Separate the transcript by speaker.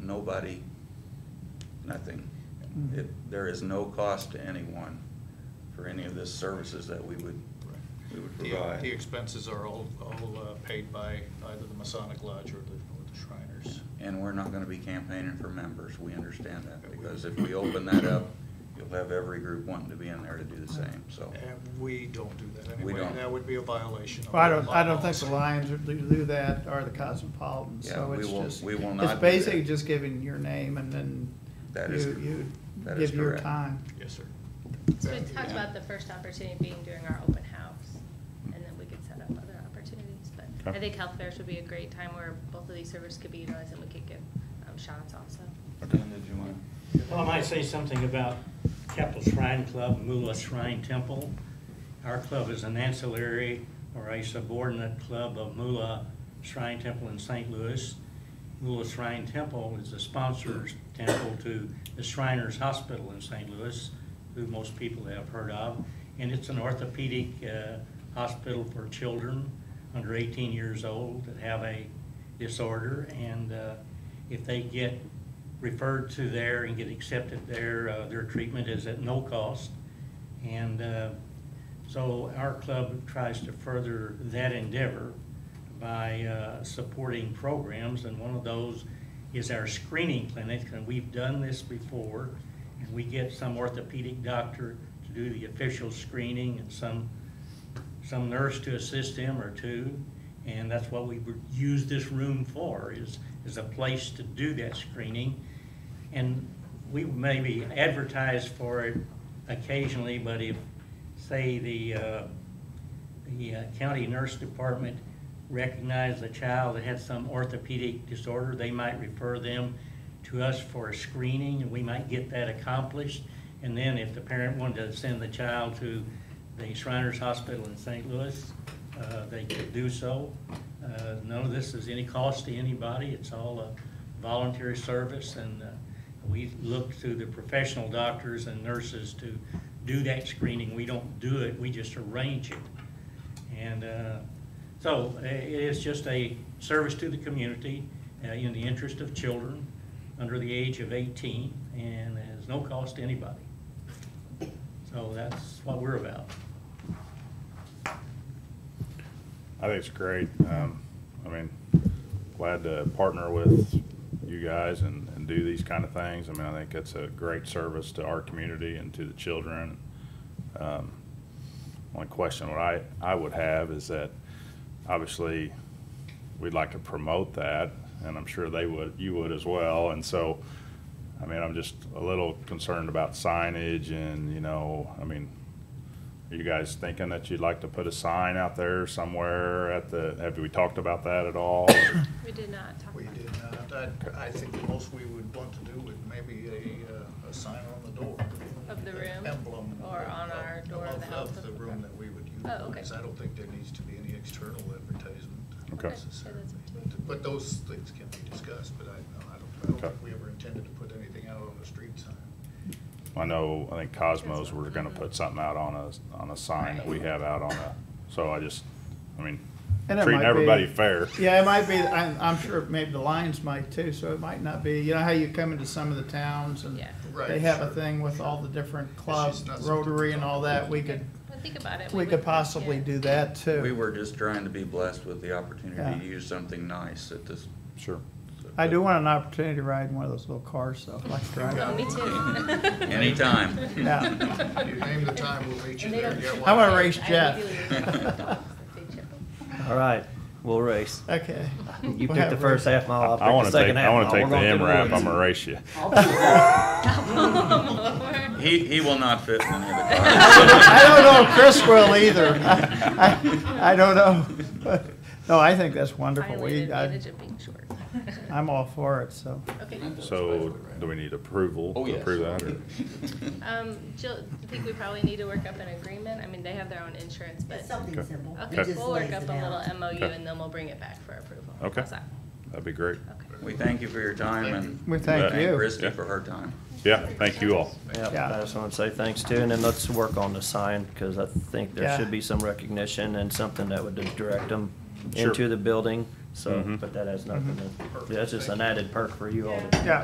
Speaker 1: nobody, nothing.
Speaker 2: Mm-hmm.
Speaker 1: It, there is no cost to anyone for any of the services that we would, we would
Speaker 3: The- uh, The
Speaker 1: provide.
Speaker 3: expenses are all, all uh, paid by either the Masonic Lodge or the or the Shriners.
Speaker 1: And we're not gonna be campaigning for members, we understand that, because if we open that up, you'll have every group wanting to be in there to do the same, so.
Speaker 3: And we don't do that
Speaker 1: We
Speaker 3: anyway.
Speaker 1: don't.
Speaker 3: That would be a violation of.
Speaker 2: Well, I
Speaker 3: our
Speaker 2: don't, I don't think
Speaker 3: bylaws.
Speaker 2: the Lions would do do that or the Cosmopolitan,
Speaker 1: Yeah,
Speaker 2: so
Speaker 1: we
Speaker 2: it's
Speaker 1: will-
Speaker 2: just.
Speaker 1: we will not do
Speaker 2: It's basically
Speaker 1: that.
Speaker 2: just giving your name and then
Speaker 1: That is-
Speaker 2: you, you
Speaker 1: that is
Speaker 2: give your
Speaker 1: correct.
Speaker 2: time.
Speaker 3: Yes, sir.
Speaker 4: So we talked about the first opportunity being during our open house, and then we could set up other opportunities, but
Speaker 5: Okay.
Speaker 4: I think health fairs would be a great time where both of these services could be utilized, and we could give um, shots also.
Speaker 1: Dan, did you want?
Speaker 6: Well, I might say something about Capitol Shrine Club, Mula Shrine Temple. Our club is an ancillary or a subordinate club of Mula Shrine Temple in St. Louis. Mula Shrine Temple is a sponsor's temple to the Shriners Hospital in St. Louis, who most people have heard of. And it's an orthopedic uh, hospital for children under 18 years old that have a disorder. And uh, if they get referred to there and get accepted there. Uh, Their treatment is at no cost. And uh, so our club tries to further that endeavor by uh, supporting programs, and one of those is our screening clinic, and we've done this before. And we get some orthopedic doctor to do the official screening and some some nurse to assist him or two, and that's what we would use this room for, is, is a place to do that screening. And we maybe advertise for it occasionally, but if, say, the, uh, the uh, county nurse department recognized a child that had some orthopedic disorder, they might refer them to us for a screening, and we might get that accomplished. And then if the parent wanted to send the child to the Shriners Hospital in St. Louis, uh, they could do so. Uh, None of this is any cost to anybody, it's all a voluntary service, and uh, we look to the professional doctors and nurses to do that screening. We don't do it, we just arrange it. And uh, so uh, it is just a service to the community uh, in the interest of children under the age of 18 and has no cost to anybody. So that's what we're about.
Speaker 5: I think it's great. Um, I mean, glad to partner with you guys and, and do these kind of things. I mean, I think it's a great service to our community and to the children. Um, Only question what I, I would have is that, obviously, we'd like to promote that, and I'm sure they would, you would as well, and so, I mean, I'm just a little concerned about signage and, you know, I mean, are you guys thinking that you'd like to put a sign out there somewhere at the, have we talked about that at all?
Speaker 4: We did not talk
Speaker 3: We
Speaker 4: about
Speaker 3: did not, I, I think the most we would want to do would maybe a, uh, a sign on the door.
Speaker 4: Of the
Speaker 3: An
Speaker 4: room?
Speaker 3: Emblem.
Speaker 4: Or on our door of the health
Speaker 3: Of
Speaker 4: of-
Speaker 3: the room that we would use.
Speaker 4: Oh, okay.
Speaker 3: Because I don't think there needs to be any external advertisement
Speaker 5: Okay. Okay, yeah,
Speaker 4: that's
Speaker 3: necessarily.
Speaker 4: fine.
Speaker 3: But- But those things can be discussed, but I, no, I don't, I don't
Speaker 5: Okay.
Speaker 3: think we ever intended to put anything out on the street sign.
Speaker 5: I know, I think Cosmos, we're gonna put something out on a, on a sign that we have out on a, so I just, I mean,
Speaker 2: And it
Speaker 5: treating
Speaker 2: might be-
Speaker 5: everybody fair.
Speaker 2: Yeah, it might be, I'm, I'm sure maybe the Lions might too, so it might not be, you know how you come into some of the towns and
Speaker 4: Yeah.
Speaker 3: Right,
Speaker 2: they have a
Speaker 3: sure,
Speaker 2: thing with all the different clubs,
Speaker 3: just not something
Speaker 2: Rotary
Speaker 3: to
Speaker 2: and all
Speaker 3: talk
Speaker 2: that, we could,
Speaker 4: Well, think about it.
Speaker 2: we could
Speaker 4: would-
Speaker 2: possibly
Speaker 4: yeah.
Speaker 2: do that too.
Speaker 1: We were just trying to be blessed with the opportunity to
Speaker 2: Yeah.
Speaker 1: use something nice at this.
Speaker 5: Sure.
Speaker 2: I do want an opportunity to ride in one of those little cars though, like to drive.
Speaker 4: Oh, me too.
Speaker 1: Anytime.
Speaker 2: Yeah.
Speaker 3: You name the time, we'll meet you
Speaker 4: And they
Speaker 3: there.
Speaker 4: don't-
Speaker 3: Yeah,
Speaker 2: I
Speaker 3: why
Speaker 2: wanna
Speaker 3: not?
Speaker 2: race
Speaker 4: I
Speaker 2: Jeff.
Speaker 4: really don't know if they chip them.
Speaker 7: All right, we'll race.
Speaker 2: Okay.
Speaker 7: You
Speaker 2: We'll
Speaker 7: pick the
Speaker 2: have
Speaker 7: first
Speaker 2: race.
Speaker 7: half mile, I'll
Speaker 5: I wanna
Speaker 7: pick the
Speaker 5: take,
Speaker 7: second
Speaker 5: I
Speaker 7: half mile.
Speaker 5: wanna take
Speaker 7: We're
Speaker 5: the
Speaker 7: gonna do
Speaker 5: M rap,
Speaker 7: wins.
Speaker 5: I'm gonna race you.
Speaker 1: He, he will not fit in any of the
Speaker 2: I don't know if Chris will either. I, I, I don't know. No, I think that's wonderful. We,
Speaker 4: Violated
Speaker 2: I,
Speaker 4: advantage of being short.
Speaker 2: I'm all for it, so.
Speaker 4: Okay.
Speaker 5: So, do we need approval
Speaker 1: Oh,
Speaker 5: to
Speaker 1: yes.
Speaker 5: approve that, or?
Speaker 4: Um, Jill, I think we probably need to work up an agreement. I mean, they have their own insurance, but.
Speaker 8: It's something simple. It
Speaker 4: Okay,
Speaker 8: just
Speaker 4: we'll work
Speaker 8: lays
Speaker 4: up
Speaker 8: it
Speaker 4: a
Speaker 8: out.
Speaker 4: little MOU
Speaker 5: Okay.
Speaker 4: and then we'll bring it back for approval.
Speaker 5: Okay.
Speaker 4: How's that?
Speaker 5: That'd be great.
Speaker 4: Okay.
Speaker 1: We thank you for your time and.
Speaker 2: We thank you.
Speaker 1: Christie for her time.
Speaker 5: Yeah, thank you all.
Speaker 2: Yeah.
Speaker 7: Yeah, I just wanna say thanks too, and then let's work on the sign, cause I think
Speaker 2: Yeah.
Speaker 7: there should be some recognition and something that would direct them
Speaker 5: Sure.
Speaker 7: into the building, so,
Speaker 5: Mhm.
Speaker 2: Mm-hmm.
Speaker 7: but that has nothing to, that's just an added perk for you all.
Speaker 4: Yeah.
Speaker 2: Yeah.